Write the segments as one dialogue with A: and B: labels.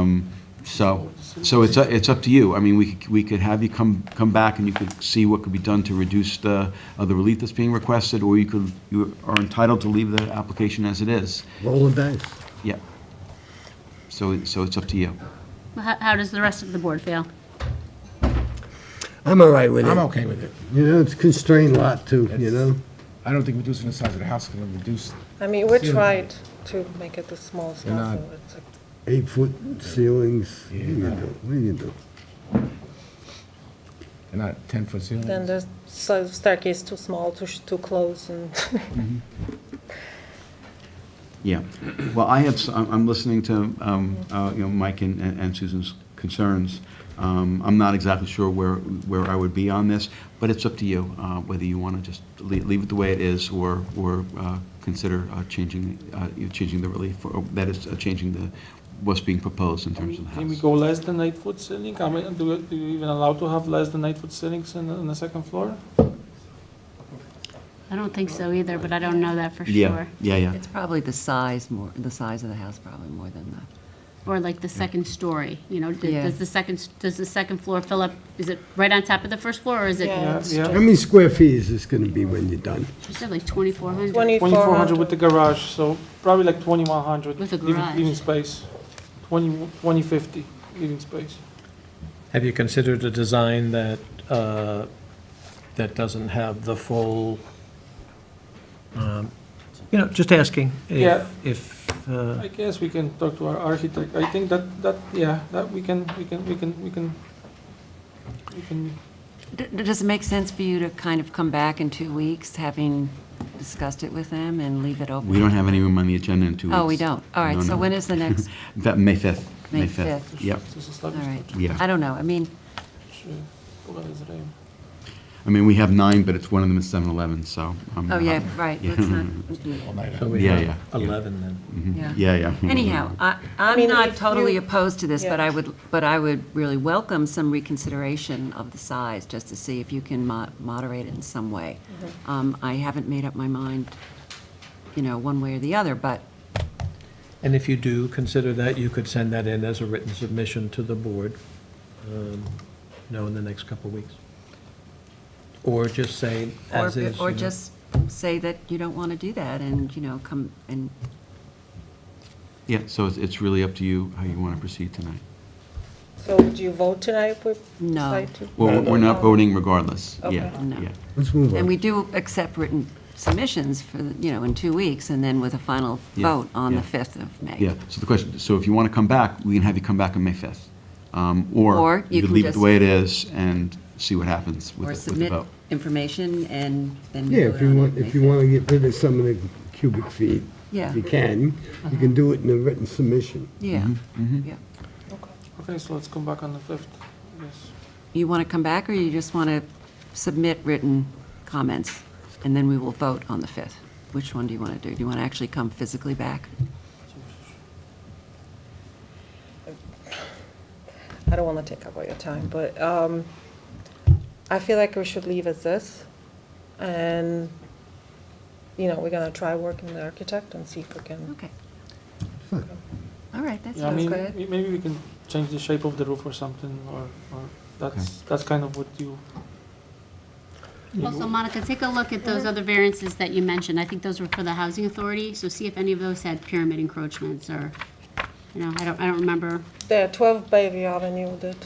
A: Um, So, so it's, a- it's up to you. I mean, we could, we could have you come, come back and you could see what could be done to reduce the, uh, the relief that's being requested, or you could, you are entitled to leave the application as it is.
B: Rolling dice.
A: Yeah. So, so it's up to you.
C: How, how does the rest of the board feel?
B: I'm all right with
D: I'm
B: it.
D: okay with it.
B: You know, it's constrained lot too, you know?
D: I don't think reducing the size of the house is going to reduce,
E: I mean, we
D: Ceiling.
E: tried to make it the smallest
D: You're
E: house.
D: not-
E: so it's like-
B: Eight-foot ceilings, what do you do? What do you do?
D: they're not 10-foot ceilings.
E: Then the so staircase too small, too, sh- too close and
A: Yeah. Well, I have, s- I'm I'm listening to, um, uh, you know, Mike and and Susan's concerns. Um, I'm not exactly sure where, where I would be on this, but it's up to you, uh, whether you want to just le- leave it the way it is or, or uh, consider uh, changing, uh, you know, changing the relief, or that is, uh, changing the, what's being proposed in terms of the
F: Can we
A: house.
F: go less than eight foot ceiling? I mean, do, do you even allow to have less than eight foot ceilings in, in the second floor?
C: I don't think so either, but I don't know that for
A: Yeah,
C: sure.
A: yeah, yeah.
G: It's probably the size more, the size of the house probably more than the,
C: Or like the second story, you know, d-
G: Yeah.
C: does the second, s- does the second floor fill up, is it right on top of the first floor, or is it?
E: Yeah.
C: It's
F: Yeah.
B: How many square feet is this gonna be when you're done?
C: She said like 2,400.
F: Twenty-four hundred
E: 2400.
F: with the garage, so probably like twenty-one hundred.
C: With a garage.
F: Living space, twenty, twenty fifty living space.
H: Have you considered a design that, uh, that doesn't have the full, um, you know, just asking
F: Yeah.
H: if, if, uh,
F: I guess we can talk to our architect. I think that, that, yeah, that we can, we can, we can, we can, we can,
G: D- d- does it make sense for you to kind of come back in two weeks, having discussed it with them and leave it open?
A: We don't have any room on the agenda in two weeks.
G: Oh, we don't. All
A: No,
G: right, so
A: no.
G: when is the next?
A: That, May 5th.
G: May
A: fifth.
G: 5th.
A: Yep.
F: this is
G: All right.
A: Yeah.
G: I don't know. I mean,
A: I mean, we have nine, but it's one of them is 7-Eleven, so. um, I'm
G: oh,
A: not-
G: yeah, right, let's not,
H: so we
A: Yeah, yeah,
H: have
A: yeah.
H: 11 then.
G: yeah.
A: Yeah, yeah.
G: Anyhow, I,
E: mean,
G: I'm
E: if
G: not
E: you-
G: totally opposed to this, but
E: Yeah.
G: I would, but I would really welcome some reconsideration of the size, just to see if you can mo- moderate it in some way.
E: Mm-hmm.
G: Um, I haven't made up my mind, you know, one way or the other, but
H: And if you do consider that, you could send that in as a written submission to the board, um, you know, in the next couple of weeks. Or just say
G: Or,
H: as is.
G: or
H: you know.
G: just say that you don't want to do that and, you know, come and,
A: Yeah, so it's, it's really up to you how you want to proceed tonight.
E: So would you vote tonight if we
G: No.
E: decide to?
A: Well, we're not voting regardless. Yeah,
E: Okay.
G: No.
A: yeah.
B: Let's move
G: and we
B: on.
G: do accept written submissions for, the- you know, in two weeks and then with a final
A: Yeah,
G: vote on the
A: yeah.
G: 5th of May.
A: Yeah, so the question, so if you want to come back, we can have you come back on May 5th. Um, Or
G: Or
A: you
G: you
A: could
G: can
A: leave it the
G: just-
A: way it is and see what happens with
G: Or
A: the with the
G: submit
A: vote.
G: information and then.
B: Yeah, if
G: vote
B: you
G: on it
B: want,
G: May
B: if you
G: 5th.
B: want to get rid of some of the cubic feet,
G: Yeah. Uh-huh.
B: you can. You can do it in a written submission.
G: Yeah, yeah.
F: Okay, so let's come back on the fifth, yes.
G: You want to come back or you just want to submit written comments? And then we will vote on the 5th. Which one do you want to do? Do you want to actually come physically back?
E: I don't want to take up all your time, but um, I feel like we should leave as this. And, you know, we're going to try working with the architect and see if we can.
G: Okay. All right, that
F: Yeah, I
G: sounds
F: mean,
G: good.
F: may- maybe we can change the shape of the roof or something, or, or that's, that's kind of what you,
C: Also, Monica, take a look at those other variances that you mentioned. I think those were for the housing authority, so see if any of those had pyramid encroachments or, you know, I don't, I don't remember.
E: Yeah, 12 Bayview Avenue did.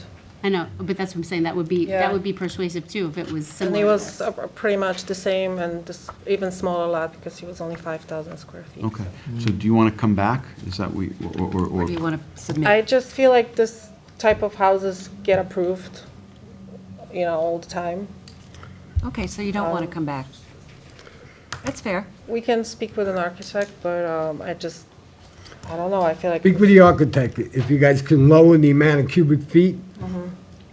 C: I know, but that's what I'm saying, that would be, that
E: Yeah.
C: would be persuasive too, if it was
E: And
C: similar.
E: it
C: to
E: was
C: this.
E: uh, pretty much the same and this even smaller lot because it was only 5,000 square feet.
A: Okay, so do you want to come back? Is that we, or, or-
G: Or
A: or,
G: do you want to submit?
E: I just feel like this type of houses get approved, you know, all the time.
G: Okay, so you don't want to come back. That's fair.
E: We can speak with an architect, but um, I just, I don't know, I feel like.
B: Speak with the architect. If you guys can lower the amount of cubic feet,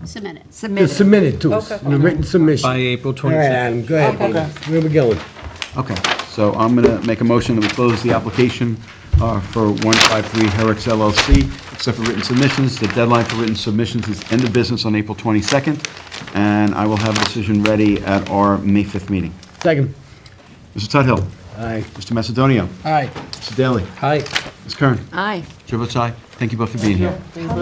C: Submit it.
G: Submit
B: just
G: it.
B: submit it to us
E: Okay.
B: in a written submission.
H: By April
B: All right,
H: 26th.
B: Adam, go ahead. baby. Where we going?
A: okay, so I'm going to make a motion that we close the application uh, for 153 Herrick's LLC, except for written submissions. The deadline for written submissions is end of business on April 22nd, and I will have a decision ready at our May 5th meeting.
B: Second.
A: Mr. Tuthill.
B: Aye.
A: Mr. Macedonio.
B: Aye.
A: Mr. Daly.
H: Hi.
A: Ms. Kern.
G: Aye.
A: Chair votes aye. Thank you both for being here.